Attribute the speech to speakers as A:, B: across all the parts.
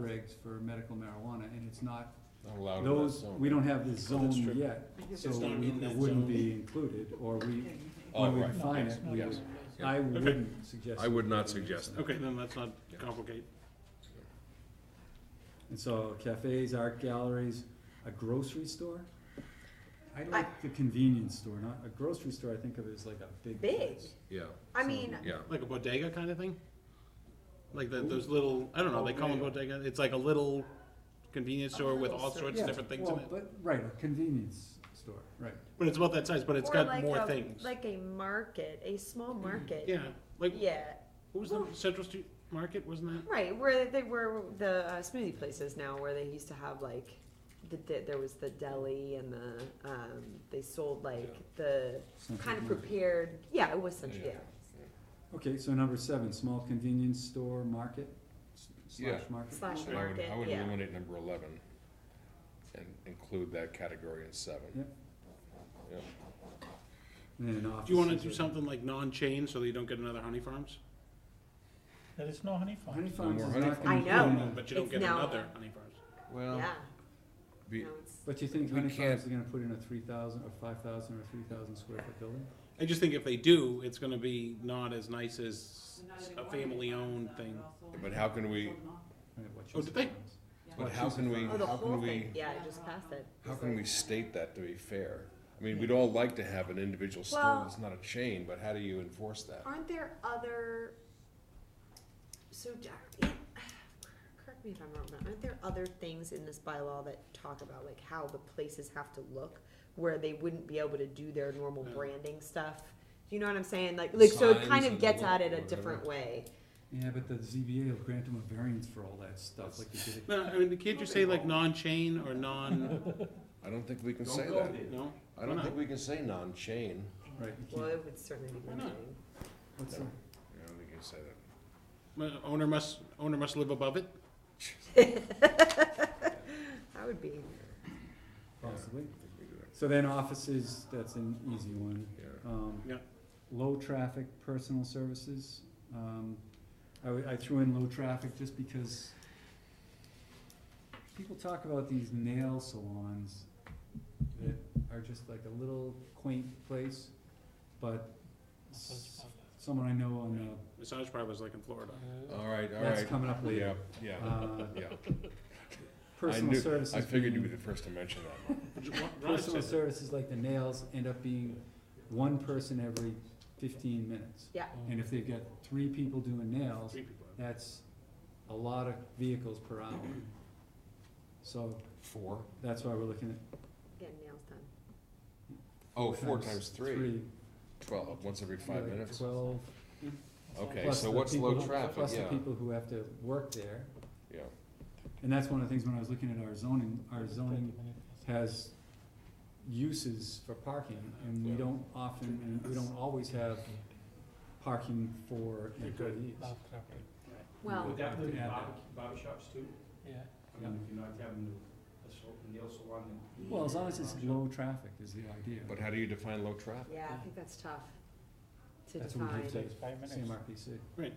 A: regs for medical marijuana, and it's not,
B: Not allowed in that
A: those,
B: zone.
A: we don't have this
C: Oh,
A: zone
C: that's true.
A: yet,
D: Because
A: so
D: it's not
A: we-
D: in
A: it
D: that
A: wouldn't
D: zone.
A: be included, or we,
B: Oh,
A: when we
B: right.
A: define it, we
B: Yes.
A: would, I wouldn't suggest.
B: I would not
A: it.
B: suggest that.
C: Okay, then let's not
B: Yeah.
C: complicate.
A: And so cafes, art galleries, a grocery store? I like the convenience store, not, a grocery store I think of as like a big
D: Big.
A: place.
B: Yeah,
D: I mean,
B: yeah.
C: Like a bodega kind of thing? Like the, those little, I don't know, they call them bodega, it's like a little convenience store with all sorts
A: Yeah,
C: of different things in
A: well,
C: it.
A: But, right, a convenience store, right.
C: But it's about that size, but it's
D: or
C: got
D: like
C: more
D: a,
C: things. Mm-hmm.
D: Like a market, a small market.
C: Yeah, like,
D: Yeah,
C: what was the Central Street Market, wasn't that?
D: right. Where they were the uh, smoothie places now, where they used to have like, the di- there was the deli and the um, they sold like the
A: Something
B: Mm-hmm.
D: kind of
A: like-
D: prepared. Yeah, it was such.
B: Yeah.
D: Yeah.
A: Okay, so number seven, small convenience store, market, s- slash
B: Yeah.
A: market.
D: Slash
B: And I would, I
D: market,
B: would
D: yeah.
B: eliminate number eleven and include that category in seven.
A: Yep. And then
C: Do you wanna
A: offices
C: do
A: are-
C: something like non-chain so that you don't get another honey farms?
E: That is no honey farm.
A: Honey Farms
B: more
A: is
B: honey
A: not
D: farms.
A: gonna.
D: I
A: be
D: know.
A: in the-
C: But you don't
D: It's
C: get
D: now-
C: another honey farms.
B: Well,
D: yeah.
B: be,
D: no, it's,
A: But you think
B: We
A: Honey
B: can't-
A: Farms is gonna put in a three thousand, or five thousand, or three thousand square foot building?
C: I just think if they do, it's gonna be not as nice as a family-owned thing.
B: but how can we,
A: And it watches
C: Oh, did they?
A: the farms.
B: but how can we,
D: oh, the
B: how
D: whole
B: can we,
D: thing. Yeah, I just passed it.
B: how can we state that to be fair? I mean, we'd all like to have an individual store
D: Well-
B: that's not a chain, but how do you enforce that?
D: Aren't there other? So, Jack, it- correct me if I'm wrong. But aren't there other things in this bylaw that talk about like how the places have to look, where they wouldn't be able to do their normal
C: Yeah.
D: branding stuff? You know what I'm saying? Like, like so it
B: Signs
D: kind of
B: and
D: gets
B: look
D: at
B: or
D: it a
B: whatever.
D: different way.
A: Yeah, but the ZBA will grant them a variance for all that stuff, like you did.
C: No, I mean, can't you say like non-chain or non,
B: I don't think we can say that.
C: no?
B: I
C: Why
B: don't
C: not?
B: think we can say non-chain.
A: at- Right, you
D: Well,
A: can't,
D: it would certainly be
C: Why
D: one
C: not?
D: thing.
A: what's
B: No.
A: that?
B: I don't think you can say that.
C: Well, Owner must, owner must live above it?
D: That would be
A: Possibly.
B: I think we do that.
A: So then offices, that's an easy one.
B: Yeah.
A: Um,
C: Yeah.
A: Low-traffic personal services. Um, I, w- I threw in low-traffic just because people talk about these nail salons that are just like a little quaint place, but s- someone I know on the,
C: Massage parlors like in Florida.
B: All right, all
A: that's
B: right.
A: coming up
B: Yeah,
A: later.
B: yeah,
A: Uh,
B: yeah. I
A: Personal
B: knew-
A: services.
B: I figured you
A: being-
B: would be the first to mention that.
C: Would you- Ron
A: Personal
C: said
A: services like the nails end up being one person every fifteen minutes.
D: yeah.
A: And if they've got three people doing
C: that.
A: nails,
C: Three people.
A: that's a lot of vehicles per hour. So
B: Four?
A: that's why we're looking at.
D: Getting nails done.
B: Oh, four times three. Twelve, once every five
A: like
B: minutes.
A: Twelve.
B: Okay,
A: plus the
B: so what's low
A: people-
B: traffic?
A: Plus the
B: Yeah,
A: people who have to work there.
B: yeah.
A: And that's one of the things when I was looking at our zoning, our zoning has uses for parking and we
B: Yeah.
A: don't often, and we don't always have parking for employees.
D: Well, Oh.
F: Would that include
A: Yeah.
F: barber, barber shops too?
E: Yeah.
F: I mean, if you're not having a- a sal- a nail salon and.
A: Well, as long as it's low traffic is the idea.
B: But how do you define low traffic?
D: yeah, I think that's tough to
A: That's what we
D: define.
A: did
E: Takes five minutes.
A: CMRPC.
B: Okay.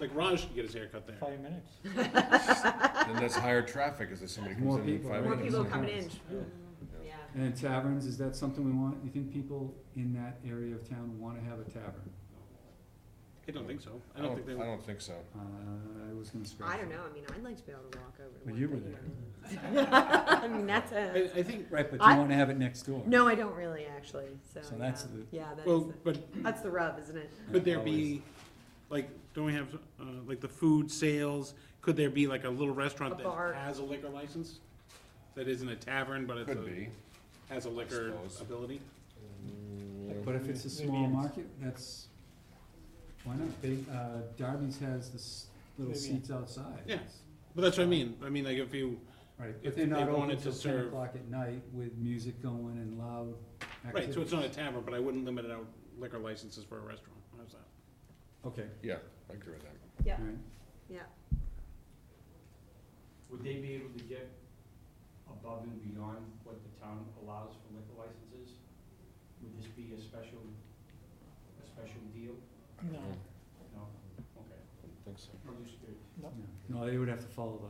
C: Like Raj could get his hair cut there.
E: Five minutes.
B: Then that's higher traffic, is that somebody
A: More
B: comes in in
A: people,
B: five
A: right?
D: More
B: minutes?
D: people coming in.
A: Yeah.
D: Yeah.
A: And then taverns, is that something we want? You think people in that area of town wanna have a tavern?
C: I don't think so. I don't think they
B: Oh, I
C: would.
B: don't think so.
A: Uh, I was gonna scratch.
D: I don't
A: that.
D: know, I mean, I'd like to be able to walk over to
A: But
D: one
A: you were
D: thing there. I mean, that's a,
C: I, I think,
A: Right, but
D: I-
A: you wanna have it next door.
D: no, I don't really actually, so.
A: So that's
D: yeah.
A: the-
D: Yeah, that is,
C: well,
D: the-
C: but
D: that's the rub, isn't it?
C: could there be, like, don't we have, uh, like the food sales? Could there be like a little
D: A
C: restaurant
D: bar.
C: that has a liquor license? That isn't a tavern, but it's
B: Could
C: a,
B: be.
C: has a liquor
B: suppose.
C: ability?
B: Mm,
A: But if it's a
E: Maybe
A: small
E: it's-
A: market, that's, why not? They, uh, Darby's has this little
E: Maybe.
A: seats outside.
C: Yeah. But that's what I mean. I mean, like if you,
A: Right,
C: If
A: but they're not
C: they
A: open
C: wanted to
A: till ten
C: serve-
A: o'clock at night with music going and loud activities.
C: right, so it's not a tavern, but I wouldn't limit out liquor licenses for a restaurant. How's that?
A: Okay,
B: Yeah, I agree with that.
D: Yeah,
A: alright.
D: yeah,
F: Would they be able to get above and beyond what the town allows for liquor licenses? Would this be a special, a special deal?
E: No.
F: No? Okay.
B: I don't think so.
F: I'm just curious.
A: No, they would have to follow the